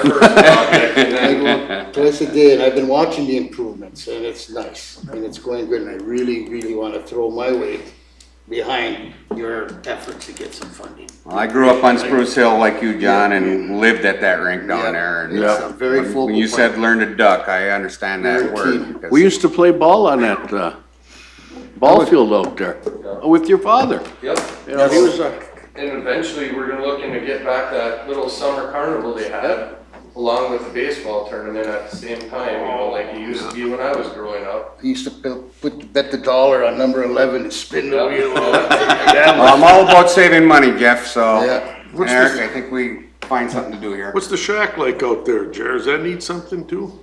first project. and I then- go Twice a day, and I've been watching the improvements, and it's nice, and it's going good, and I really, really wanna throw my weight behind your effort to get some funding. Well, I grew up on Spruce Hill like you, John, and lived at that rink down there. and It's a very when- focal When you point. said learn to duck, I understand Very that keen. word. because- We used to play ball on that, uh, ball field out there uh, with your father. Yep, You know, he was a, and eventually we're gonna looking to get back that little summer carnival they had along with the baseball tournament at the same time, you know, like it used to be when I was growing up. He used to bu- put, bet the dollar on number eleven and spin the wheel. Well, I'm all about saving money, Jeff, so Yeah. What's Eric, this- I think we find something to do here. What's the shack like out there, Jer? Does that need something too?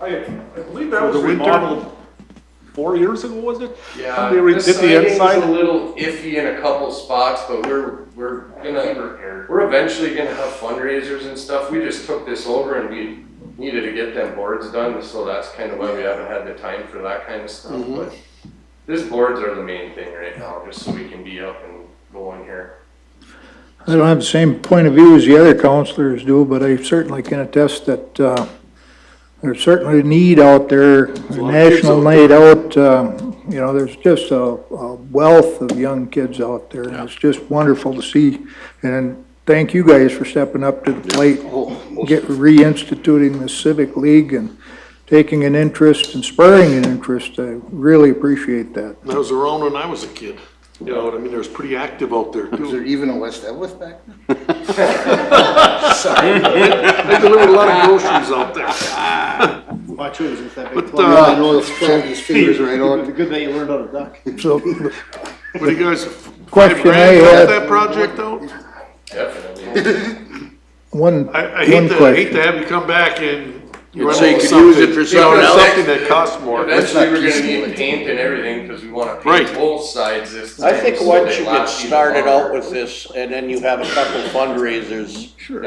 I, I believe that For was the winter? remodeled four years ago, was it? Yeah, They re- the did the siding's a inside, little iffy in a couple spots, but we're, we're gonna, we're eventually gonna have fundraisers and stuff. We just took this over and we needed to get them boards done, so that's kind of why we haven't had the time for that kind of stuff, Mm-hmm. but these boards are the main thing right now, just so we can be up and going here. I don't have the same point of view as the other counselors do, but I certainly can attest that, uh, there's certainly a need out there, a lot of kids national out need out, um, you know, there's just a, a wealth of young kids out there. and It's just wonderful to see, and thank you guys for stepping up to the plate, Oh, get, reinstituting the civic league and taking an interest and spurring an interest. I really appreciate that. That was around when I was a kid. You know what I mean? There was pretty active out there Is too. there even a West Edworth back then? They delivered a lot of groceries out there. Watch it, it's that big But, club. I uh, know, it's his fingers right on. Good that you learned how to duck. So, what do you guys, five Question I grand help had- that project out? Definitely. one, one I, I hate to, I hate question. to have you come back and. you run say out of you could use it something. for You something know, else. Something that costs more. Eventually, not we're gonna piecemeal need it. paint and everything, cause we wanna Right. paint both sides this time. I think so once they you get last even started longer. out with this, and then you have a couple fundraisers, Yep,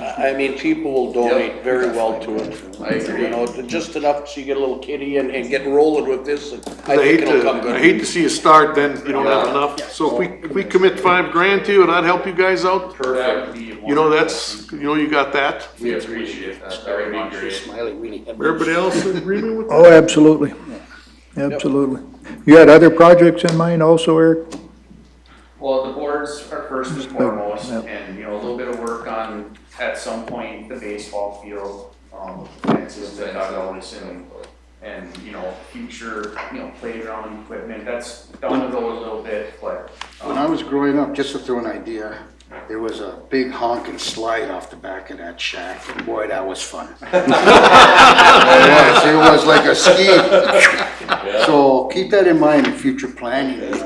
I I mean, people will donate very well to it. I agree. You know, just enough so you get a little kitty and, and get rolling with this, and I I hate think it'll to, come I good. hate to see you start, then you don't have enough. So if we, if we commit five grand to you, and I'd help you guys out, perfect. you know, that's, you know, you got that. We appreciate that, that would be great. Smiley, weenie. Everybody else in agreement with Oh, absolutely, absolutely. You had other projects in mind also, Eric? Well, the boards are first and foremost, Yep. and, you know, a little bit of work on, Um, at some point, the baseball field, um, fences, the dugouts, and, and, you know, future, you know, playground equipment, that's down the road a little bit, but, When I was growing up, just to throw an idea, there was a big honking slide off the back of that shack, and boy, that was fun. Yes, it was like a ski. So keep that in mind in future planning. And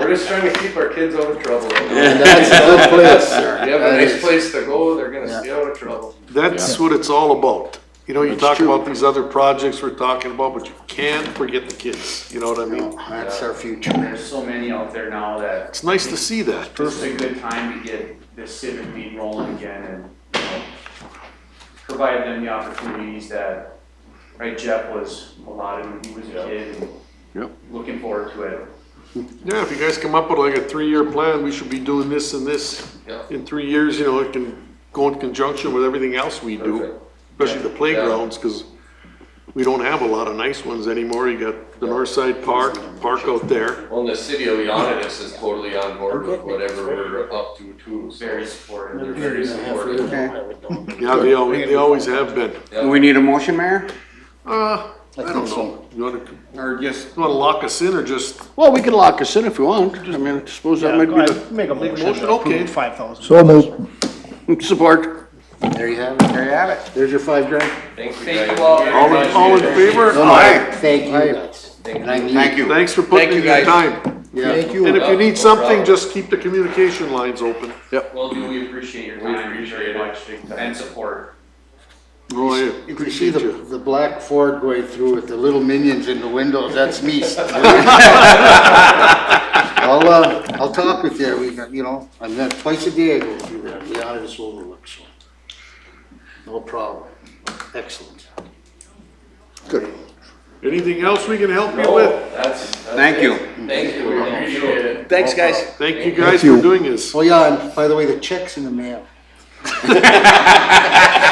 We're just trying to keep our kids out of trouble. that's a good place, sir. You have a That nice is- place to go, they're gonna stay out of trouble. That's what it's all about. You know, you talk about these other projects we're talking about, but you can't forget the kids, you know what I No, mean? That's our future. um, there's so many out there now that It's nice to see that. It's a good time to get the civic league rolling again and, you know, provide them the opportunities that, right, Jeff was a lot of, he was a kid Yep. and looking forward to it. Yeah, if you guys come up with like a three-year plan, we should be doing this and this Yeah. in three years, you know, it can go in conjunction with everything else we do. Perfect. Especially the playgrounds, cause we don't have a lot of nice ones anymore. You got the North Side Park, park out there. Well, and the city of Leonidas is totally on board with whatever we're up to too. so Very supportive. They're very supportive. Yeah, they always, they always have been. Do we need a motion, Mayor? Uh, I think don't so. know. You wanna, you Or just, wanna lock us in or just Well, we can lock us in if we want. I mean, I suppose that Yeah, might go be ahead, Make a motion motion, to okay. approve five thousand. So moved. the support. There you have it. There you have it. There's your five grand. Thank you Thank guys. you all. all in, all in favor? No, no, Aye. Thank you guys. And I thank need, you. Thanks for Thank putting you, in your guys. time. yeah, And if you No need something, problem. just keep the communication lines open. Well, do we appreciate your We time appreciate very it. much and support. Oh, I you can see appreciate the, you. the black Ford going through with the little minions in the windows, that's me. I'll, uh, I'll talk with you, we, got- you know, I'm there twice a day I go through there, the honest overlook, so. No problem, excellent. Good. Anything else we can help you No, with? that's- that's Thank it. you. Thank you, we appreciate it. Thanks, guys. Thank you guys for doing this. Oh yeah, and by the way, the check's in the mail.